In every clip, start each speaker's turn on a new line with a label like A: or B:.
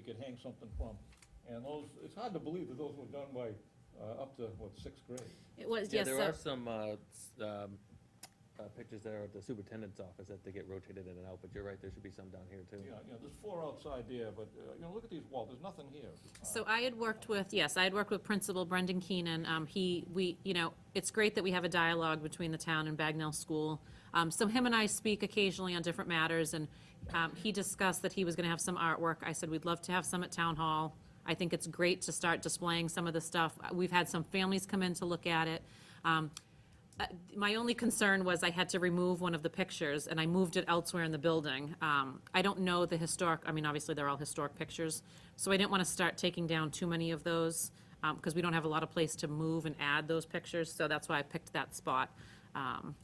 A: could hang something from. And those, it's hard to believe that those were done by, uh, up to, what, sixth grade?
B: It was,
C: Yeah,
B: yes,
C: there
B: so,
C: are some, uh, s- um, uh, pictures there at the superintendent's office that they get rotated in and out, but you're right, there should be some down here too.
A: Yeah, yeah, there's four outside there, but, uh, you know, look at these walls, there's nothing here. Uh,
B: so I had worked with, yes, I had worked with Principal Brendan Keenan. Um, he, we, you know, it's great that we have a dialogue between the town and Bagnell School. Um, so him and I speak occasionally on different matters, and, um, he discussed that he was gonna have some artwork. I said, we'd love to have some at Town Hall. I think it's great to start displaying some of the stuff. Uh, We've had some families come in to look at it. Um, Uh, My only concern was I had to remove one of the pictures, and I moved it elsewhere in the building. Um, I don't know the historic, I mean, obviously, they're all historic pictures, so I didn't want to start taking down too many of those, because we don't have a lot of place to move and add those pictures, so that's why I picked that spot. Um,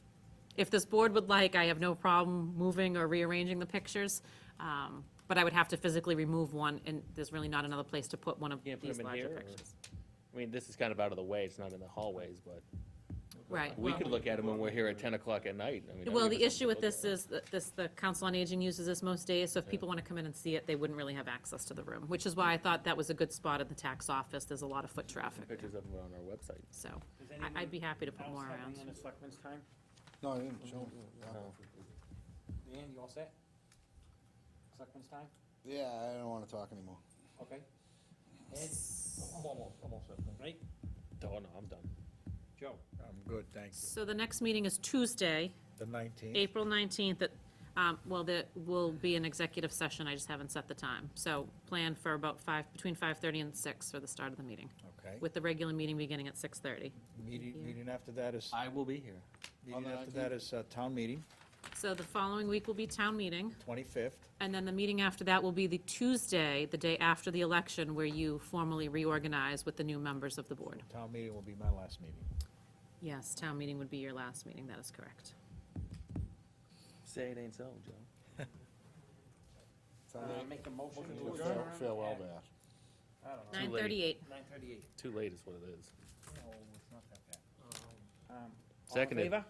B: If this board would like, I have no problem moving or rearranging the pictures, um, but I would have to physically remove one, and there's really not another place to put one of
C: Can't put
B: these
C: them in
B: larger
C: here, or-
B: pictures.
C: I mean, this is kind of out of the way, it's not in the hallways, but
B: Right.
C: we
B: well-
C: could look at them when we're here at ten o'clock at night. I mean, that'd
B: Well,
C: give
B: the issue
C: us something to
B: with
C: look at.
B: this is that this, the Council on Aging uses this most days, so if people want to come in and see it, they wouldn't really have access to the room, which is why I thought that was a good spot at the tax office. There's a lot of foot traffic,
C: Pictures of them on our website.
B: so
D: Does
B: I- I'd be happy to put more
D: anyone else have
B: around.
D: any in the selectmen's time?
E: No, I didn't show
C: No.
D: Leanne, you all set? Selectmen's time?
E: Yeah, I don't wanna talk anymore.
D: Okay. Ed,
A: I'm almost, almost at that.
D: Nate,
C: Oh, no, I'm done.
D: Joe?
F: I'm good, thank you.
B: So the next meeting is Tuesday,
F: The nineteenth?
B: April 19th, at, um, well, there will be an executive session. I just haven't set the time. So plan for about five, between 5:30 and 6 for the start of the meeting,
F: Okay.
B: with the regular meeting beginning at 6:30.
F: Meeting,
B: you.
F: meeting after that is,
C: I will be here.
E: On
F: meeting
E: the
F: after that is uh, town meeting,
B: So the following week will be town meeting.
F: twenty-fifth.
B: And then the meeting after that will be the Tuesday, the day after the election, where you formally reorganize with the new members of the board.
F: Town meeting will be my last meeting.
B: Yes, town meeting would be your last meeting, that is correct.
C: Say it ain't so, Joe.
D: Uh, make a motion
A: Motion
D: to
A: to
D: adjourn?
A: adjourn.
E: Farewell,
D: at-
E: Bash.
D: I don't know.
C: Nine-
B: Nine thirty-eight.
D: Nine thirty-eight.
C: Too late is what it is.
D: No, it's not that bad. Um, all in
C: Seconded.
D: favor?